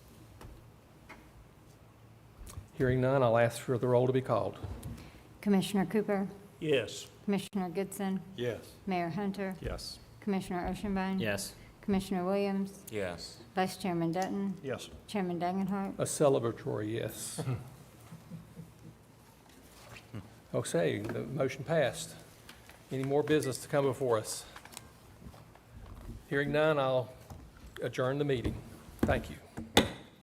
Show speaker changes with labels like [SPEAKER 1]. [SPEAKER 1] Hearing none, I'll ask for the roll to be called.
[SPEAKER 2] Commissioner Cooper,
[SPEAKER 3] Yes.
[SPEAKER 2] Commissioner Goodson,
[SPEAKER 3] Yes.
[SPEAKER 2] Mayor Hunter,
[SPEAKER 3] Yes.
[SPEAKER 2] Commissioner Oshinbain.
[SPEAKER 4] Yes.
[SPEAKER 2] Commissioner Williams,
[SPEAKER 4] Yes.
[SPEAKER 2] Vice Chairman Dutton,
[SPEAKER 3] Yes.
[SPEAKER 2] Chairman Dagenhart.
[SPEAKER 1] A celebratory yes. Okay, the motion passed. Any more business to come before us? Hearing none, I'll adjourn the meeting. Thank you.